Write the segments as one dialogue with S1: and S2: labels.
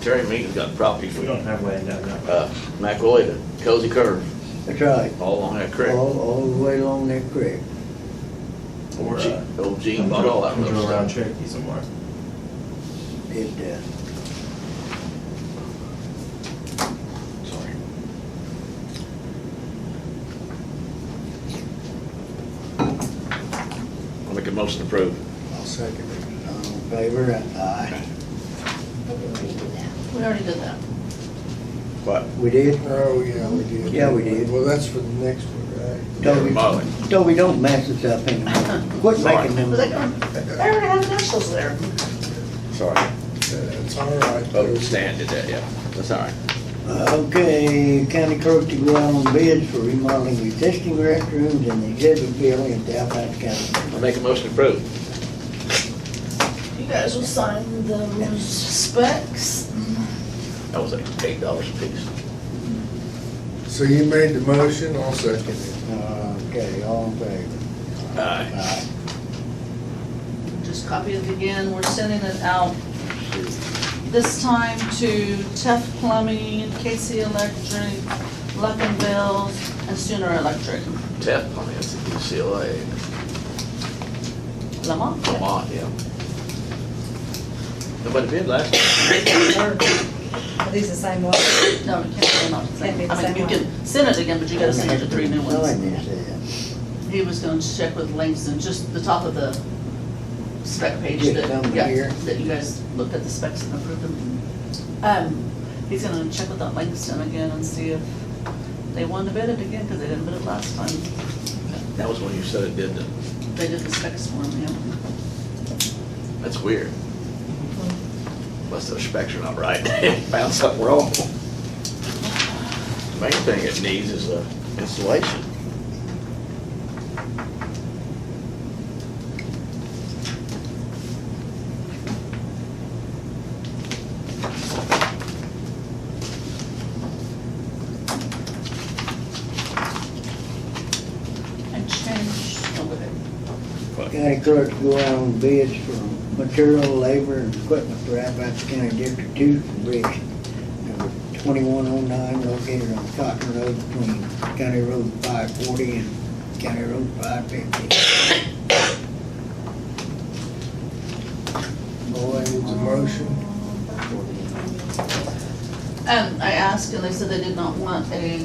S1: Terry Mead's got property
S2: We
S1: from,
S2: don't have land down that way.
S1: uh, McElroy to Cozy Curve,
S3: That's right.
S1: all along that creek.
S3: All, all the way along that creek.
S1: Or,
S2: Gee.
S1: uh, Old Gene bought all that
S2: Come
S1: little
S2: through around
S1: stuff.
S2: Cherokee somewhere.
S3: It, uh,
S1: Sorry. I'll make a motion to approve.
S3: I'll second it. All in favor? Aye.
S4: We already did that. We already did that.
S1: What?
S3: We did?
S5: Oh, yeah, we did.
S3: Yeah, we did.
S5: Well, that's for the next one, right?
S3: Toby,
S1: Molly.
S3: Toby, don't mess us up anymore. Quit
S1: Sorry.
S3: making them.
S4: Was that going, they already have initials there.
S1: Sorry.
S5: That's all right.
S1: Oh, Stan did that, yeah. That's all right.
S3: Okay, county clerk to go out on bids for remodeling existing restrooms in the exhibit building in Alpine County.
S1: I'll make a motion to approve.
S4: You guys will sign the specs.
S1: That was like eight dollars a piece.
S5: So you made the motion, I'll second it.
S3: Okay, all in favor?
S1: Aye.
S3: Aye.
S4: Just copy it again. We're sending it out this time to Tef Plumbing, Casey Electric, Luckinville, and Sooner Electric.
S1: Tef, I mean, it's UCLA,
S4: Lamont?
S1: Vermont, yeah. Nobody bid last year.
S6: Are these the same ones?
S4: No, you can't, they're not the
S6: Can't be
S4: same. I
S6: the
S4: mean,
S6: same
S4: you
S6: one.
S4: can send it again, but you gotta send it to three new ones.
S3: Sign this,
S4: He was going to check with Langston, just the top of the spec page
S3: Yeah,
S4: that,
S3: down here.
S4: yeah, that you guys looked at the specs and approved them. Um, he's gonna check with that Langston again and see if they want to bid it again, because they didn't bid it last time.
S1: That was when you said it did, the-
S4: They did the specs for him, yeah.
S1: that's weird. Unless those specs are not right, found something wrong. The Main thing it needs is a installation.
S4: I changed, oh, with it.
S3: yeah. County clerk to go out on bids for material, labor, and equipment for Alpine County District Two Bridge. Number twenty-one oh nine located on Cotton Road between County Road five forty and County Road five fifty.
S5: Boy, needs a motion.
S4: Um, I asked and they said they did not want a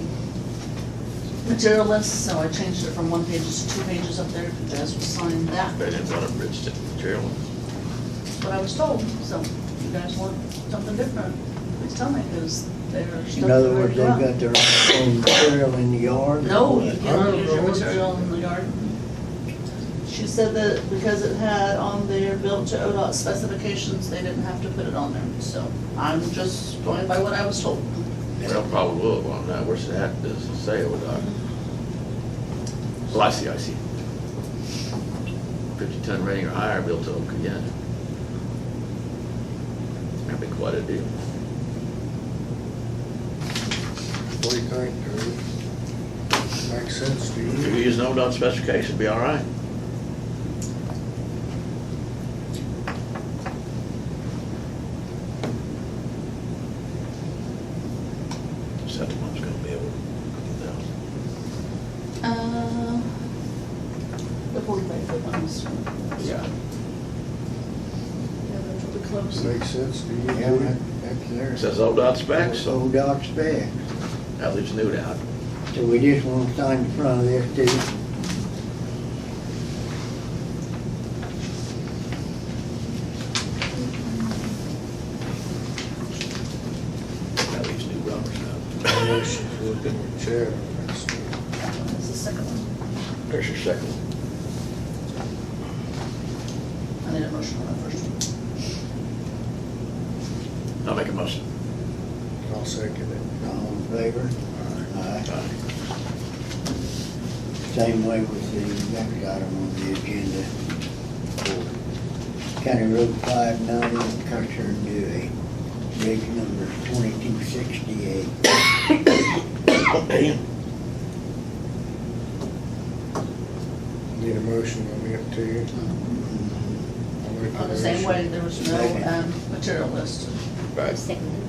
S4: material list, so I changed it from one page to two pages up there, if you guys will sign that.
S1: They didn't want a bridge to material.
S4: what I was told, so if you guys want something different, please tell me, because they're stuck.
S3: In other words, they've
S4: where they
S3: got their own material in the yard. or
S4: No,
S3: what?
S4: you cannot use your material in the yard. She said that because it had on there built to ODOT specifications, they didn't have to put it on there, so I'm just going by what I was told.
S1: Well, probably will, well, no, where's that, does it say, oh, doc? Well, I see, I see. Fifty ton rating or higher built to oak again. That'd be quite a deal.
S5: What do you think, Drew? Makes sense to
S1: If
S5: you?
S1: we use an ODOT specification, be all right. Except the one's gonna be able to,
S4: Uh, The forty-five foot ones.
S1: yeah.
S4: Yeah, that will be close.
S5: Makes sense to you?
S3: Yeah, that- that's
S1: It
S3: theirs.
S1: says ODOT specs, so
S3: Old dog spec.
S1: that leaves Newt out.
S3: So we just want to sign in front of this too.
S1: That leaves Newt Roberts out.
S5: Motion to look in the chair. That's good.
S4: That one is the second one.
S1: There's your second one.
S4: I need a motion on that first one.
S1: I'll make a motion.
S5: I'll second it.
S3: All in favor? Aye.
S1: Aye.
S3: Same way with the next item on the agenda. for County Road five ninety, Custer and Dewey, bridge number twenty-two sixty-eight.
S5: Need a motion on it too? I'll make
S4: On the same
S5: motion.
S4: way, there was no um, material list.
S7: Right.
S6: Second.